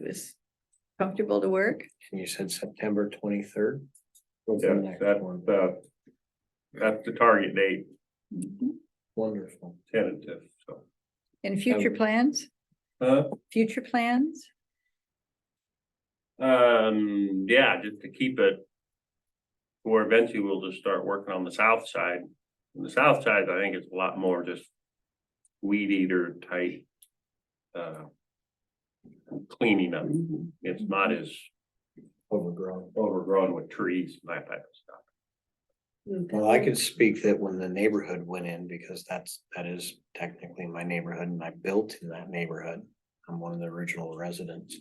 was comfortable to work. And you said September twenty-third? Yeah, that one, that. That's the target date And Wonderful. tentative, so. future plans, Huh? future plans? Um, yeah, just to keep it. Or eventually we'll just start working on the south side. On The south side, I think it's a lot more just. Weed eater type. Uh. Cleaning up. It's not as Overgrown. overgrown with trees and that type of stuff. Well, I could speak that when the neighborhood went in, because that's, that is technically my neighborhood and I built in that neighborhood. I'm one of the original residents.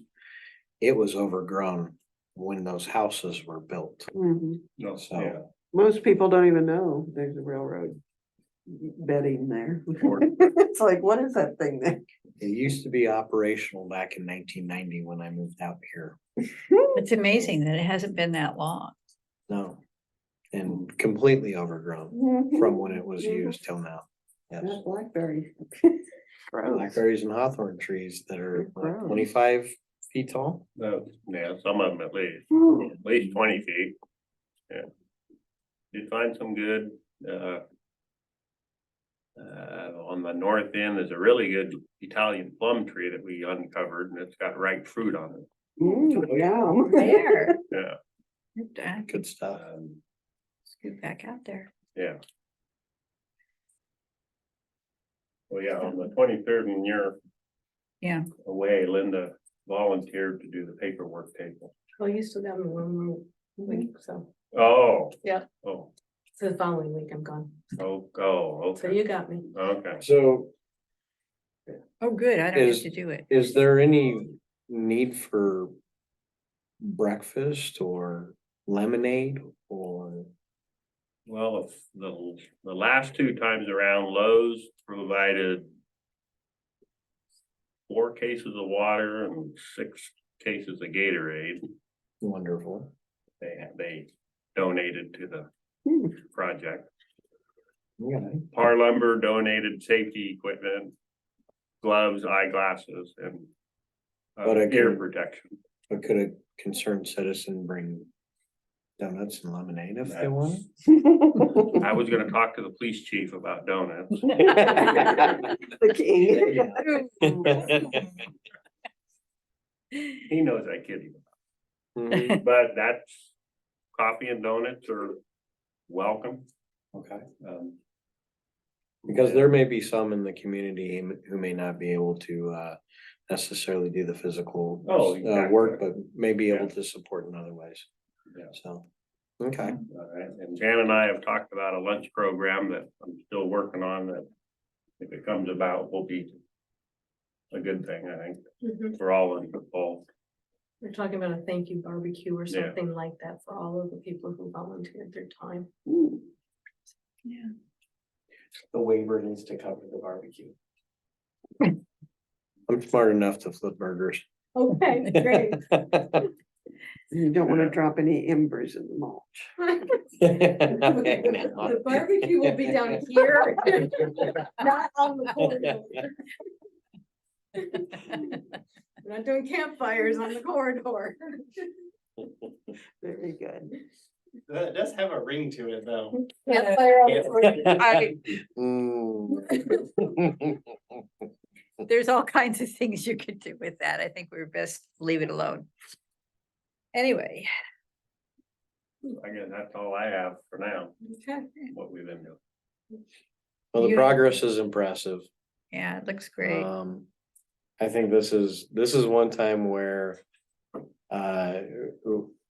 It was overgrown when those houses were built, Mhm. No, so. Most people don't even know there's a railroad bedding there. Or- It's like, what is that thing there? It used to be operational back in nineteen ninety when I moved out here. It's amazing that it hasn't been that long. No. And completely overgrown from when it Mm-hmm. was used till now. Yes. That blackberry. Gross. Blackberries and hawthorn trees that are what, Gross. twenty-five feet tall. No, yeah, some of them at least, Hmm. at least twenty feet. Yeah. Did find some good, uh. Uh, on the north end, there's a really good Italian plum tree that we uncovered and it's got ripe fruit on it. Mm, yum. There. uh, Yeah. Let's Good stuff. Um, Scoot back out there. yeah. Well, yeah, on the twenty-third when you're. Yeah. Away, Linda volunteered to do the paperwork table. Well, you still got me one more week, so Oh. Yeah. Oh, it's the following week I'm gone. oh, oh, So okay, you got me. okay. So Oh, good. I don't have Is- to do it. is there any need for breakfast or lemonade or? Well, if the, the last two times around Lowe's provided. Four cases of water and six cases of Gatorade. Wonderful. They, they donated to Hmm. the project. Yeah, Par Lumber donated safety equipment, gloves, eyeglasses and. uh, But I can- ear protection. but could a concerned citizen bring donuts and lemonade if they want? I was gonna talk to the police chief about donuts. The king. He knows I kid him. Mhm, But that's coffee and donuts are welcome. Okay, Um, because there may be some in the community who- who may not be able to uh necessarily do the physical. Oh, uh, exactly. Work, but may be able to support in other ways. Yeah. So, okay, all right, uh, And Jan and I have talked about a lunch program that I'm still working on that if it comes about will be a good thing, I think, Mhm. for all involved. We're talking about a thank you barbecue or Yeah. something like that for all of the people who volunteered their time. Hmm. The waiver needs to cover the barbecue. I'm smart enough to flip burgers. Okay, great. You don't want to drop any embers in the mulch. The barbecue will be down here. Not on the corridor. We're not doing campfires on the corridor. Very good. That does have a ring to it, though. Campfire on the corridor. I- Mm. There's all kinds of things you could do with that. I think we're best leave it alone. Anyway, I guess that's all I have for now, Okay. what we've been doing. Well, the You- progress is impressive. yeah, it looks great. Um, I think this is, this is one time where. Uh,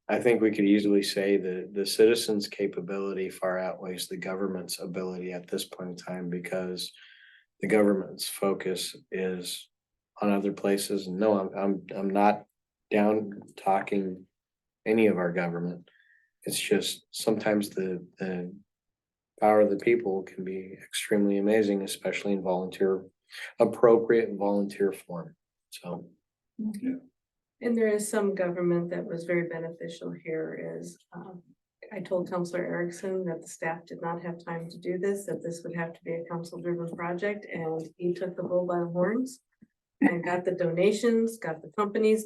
I think we could easily say that the citizens' capability far outweighs the government's ability at this point in time because. The government's focus is on other places. No, I'm, I'm, I'm not down talking any of our government. It's just sometimes the, the power of the people can be extremely amazing, especially in volunteer appropriate volunteer form, so. And there is some government that was very beneficial here is, um, I told Counselor Erickson that the staff did not have time to do this, that this would have to be a council driven project, and he took the bull by the horns. And got the donations, got the companies